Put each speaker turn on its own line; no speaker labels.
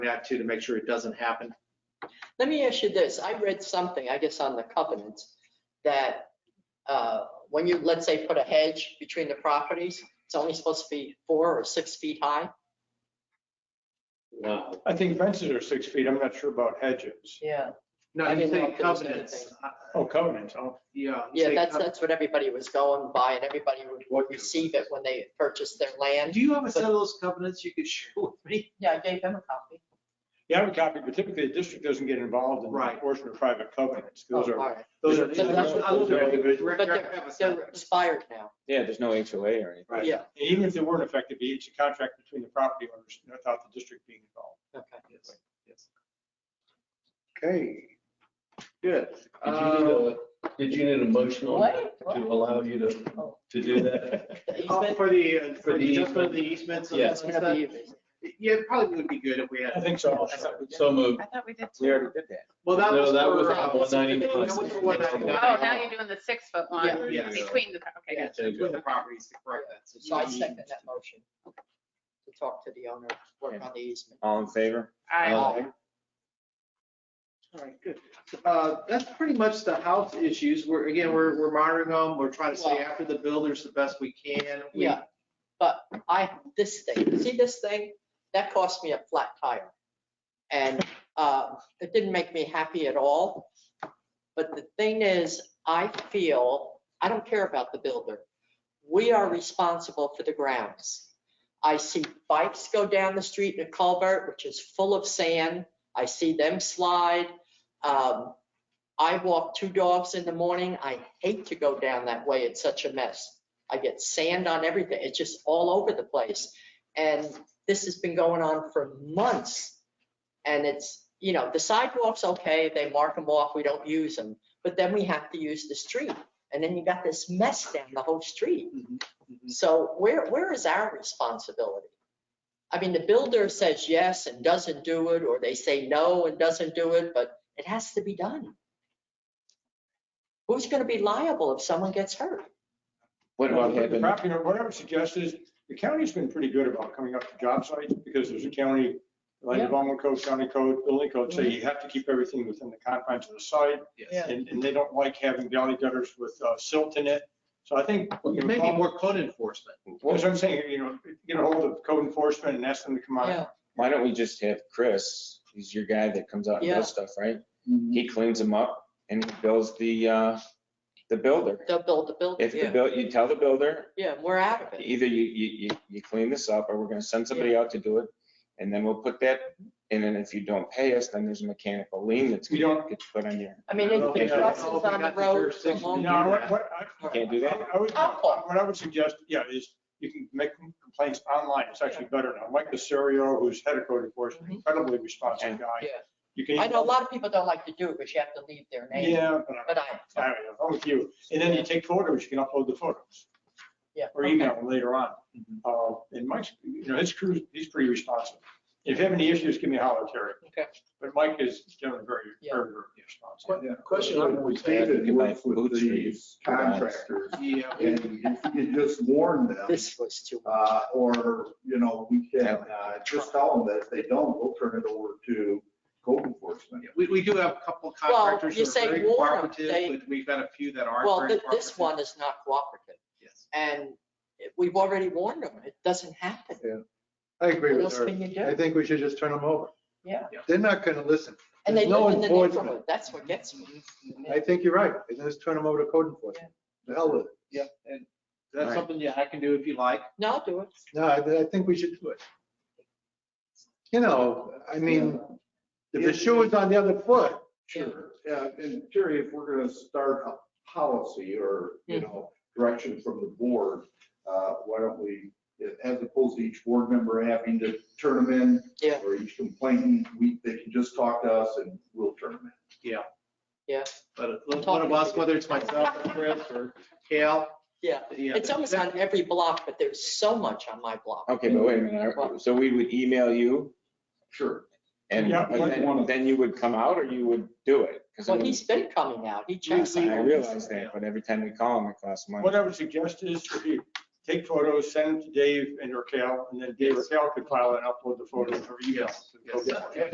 that too, to make sure it doesn't happen.
Let me ask you this. I read something, I guess, on the covenants, that uh, when you, let's say, put a hedge between the properties, it's only supposed to be four or six feet high.
No,
I think fences are six feet. I'm not sure about hedges.
Yeah.
No,
I
you
didn't know
say
if there was
covenants.
anything.
Uh,
Oh, covenants. Oh,
Yeah. you
Yeah,
say
that's,
covenants.
that's what everybody was going by, and everybody would
What you-
receive it when they purchased their land.
Do you have a set of those covenants you could share with me?
Yeah, I gave them a copy.
yeah, I have a copy, but typically the district doesn't get involved in
Right.
enforcement of private covenants. Those
Oh,
are,
all right.
Those are.
But that's what-
those are individual.
But
Rick, I have a
they're,
set.
they're expired now.
yeah, there's no HOA or anything.
Right.
Yeah,
and even if they weren't effective, it's a contract between the property owners without the district being involved.
okay.
Yes, yes.
Okay.
Good.
Did you need
Um,
a, did you need a motion on that to allow you to, to do that?
The
oh,
easement?
For the, uh, for the, just for
easement.
the easements and
Yeah.
It's gonna be
stuff?
easement.
Yeah, it probably would be good if we
I
had.
think so.
So moved.
I thought we did
We
too.
already did that.
Well, that
No,
was.
that
for,
was
uh,
on one ninety-nine.
that was for 199.
Oh, now you're doing the six foot one
Yeah.
between the, okay,
Yeah,
gotcha.
so With the properties to correct that.
So I second that motion to talk to the owner, work on the easement.
All in favor?
I-
Oh.
Aye.
Oh.
All right, good. Uh, That's pretty much the house issues. We're, again, we're, we're monitoring them. We're trying to stay
Well-
after the builders the best we can. We-
Yeah, but I, this thing, see this thing? That cost me a flat tire. And uh, it didn't make me happy at all. But the thing is, I feel, I don't care about the builder. We are responsible for the grounds. I see bikes go down the street in a culvert, which is full of sand. I see them slide. Um, I walk two dogs in the morning. I hate to go down that way. It's such a mess. I get sand on everything. It's just all over the place. And this has been going on for months. And it's, you know, the sidewalks, okay, they mark them off, we don't use them. But then we have to use the street. And then you got this mess down the whole street.
Mhm, mhm.
So where, where is our responsibility? I mean, the builder says yes and doesn't do it, or they say no and doesn't do it, but it has to be done. Who's gonna be liable if someone gets hurt?
What about
The
having,
property owner, what I would suggest is, the county's been pretty good about coming up to job sites, because there's a county, land
Yeah. Mm-hmm.
development code, county code, building code, so you have to keep everything within the confines of the site.
Yes.
And, and they don't like having valley gutters with uh, silt in it. So I think, you know,
Maybe
Paul-
more code enforcement.
that's what I'm saying, you know, get a hold of code enforcement and ask them to come
Yeah.
out.
why don't we just have Chris, he's your guy that comes out and does stuff, right? He cleans them up and he bills the, uh, the builder.
They'll build the building.
If the buil, you tell the builder,
Yeah, we're out of it.
either you, you, you, you clean this up or we're gonna send somebody out to do it. And then we'll put that, and then if you don't pay us, then there's a mechanical lien that's
We
gonna
don't-
get put on your,
I mean,
I don't
if the
think- I
trust is
don't think
on the
that's a
road, it's a
jurisdiction.
long.
No, what, what I-
you can't do that?
I would, what I would suggest, yeah, is you can make complaints online. It's actually better now. Mike Casario, who's head of code enforcement, incredibly responsive guy.
Mm-hmm. Yeah.
You can.
I know a lot of people don't like to do it because you have to leave their name,
Yeah, but I-
but I,
I don't know. I'm with you. And then you take photos, you can upload the photos
yeah.
or email them later on.
Mm-hmm.
Uh, And Mike's, you know, his crew, he's pretty responsive. If you have any issues, give me a holler, Terry.
Okay.
But Mike is generally very,
Yeah.
very very responsive.
Question on
We
we
had to
David
buy
worked with
food
the
trees.
contractors
Yeah.
and if you could just warn them,
This was too much.
uh, or, you know, we can, uh, just tell them that if they don't, we'll turn it over to code enforcement.
We, we do have a couple
Well,
contractors
you
who
say
are very
warn 'em,
cooperative,
they-
but we've got a few that aren't.
Well,
very
thi- this
cooperative.
one is not cooperative
Yes.
and we've already warned them. It doesn't happen.
I agree
What
with
else
her.
can you
I
do?
think we should just turn them over.
Yeah.
They're not going to listen.
And they
There's no
live in the
enforcement.
neighborhood. That's what gets me.
I think you're right. Let's turn them over to code enforcement. The hell with it.
Yeah, and that's
Right.
something that I can do if you like.
No, I'll do it.
No, I, I think we should do it. You know, I mean, if the shoe was on the other foot,
Sure. Yeah, and Terry, if we're gonna start a policy or, you know, direction from the board, uh, why don't we, as opposed to each board member having to turn them in
Yeah.
or each complainant, we, they can just talk to us and we'll turn them in.
But one of us, whether it's myself or Chris or Cal.
Yeah.
yeah,
It's almost
that-
on every block, but there's so much on my block.
okay, but wait a minute, are- so we would email you
Sure.
and
Yeah, like
then-
one of-
then you would come out or you would do it? 'Cause it
Well,
would-
he's been coming out. He checks.
I
on it.
realize that, but every time we call him, it costs money.
What I would suggest is if you take photos, send them to Dave and Raquel, and then Dave or Raquel could file it and upload the photos or email. to the board.